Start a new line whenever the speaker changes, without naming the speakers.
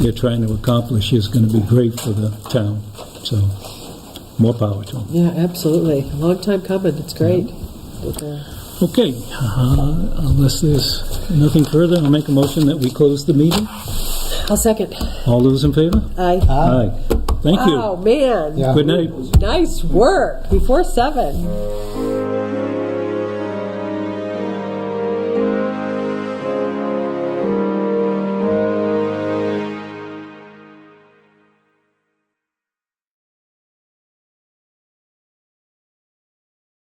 they're trying to accomplish is going to be great for the town. So, more power to them.
Yeah, absolutely. Long time coming. It's great. Yeah.
Okay, uh, unless there's nothing further, I'll make a motion that we close the meeting.
I'll second.
All those in favor?
Aye.
Aye. Thank
Oh,
you.
man.
Good night.
Nice work before seven.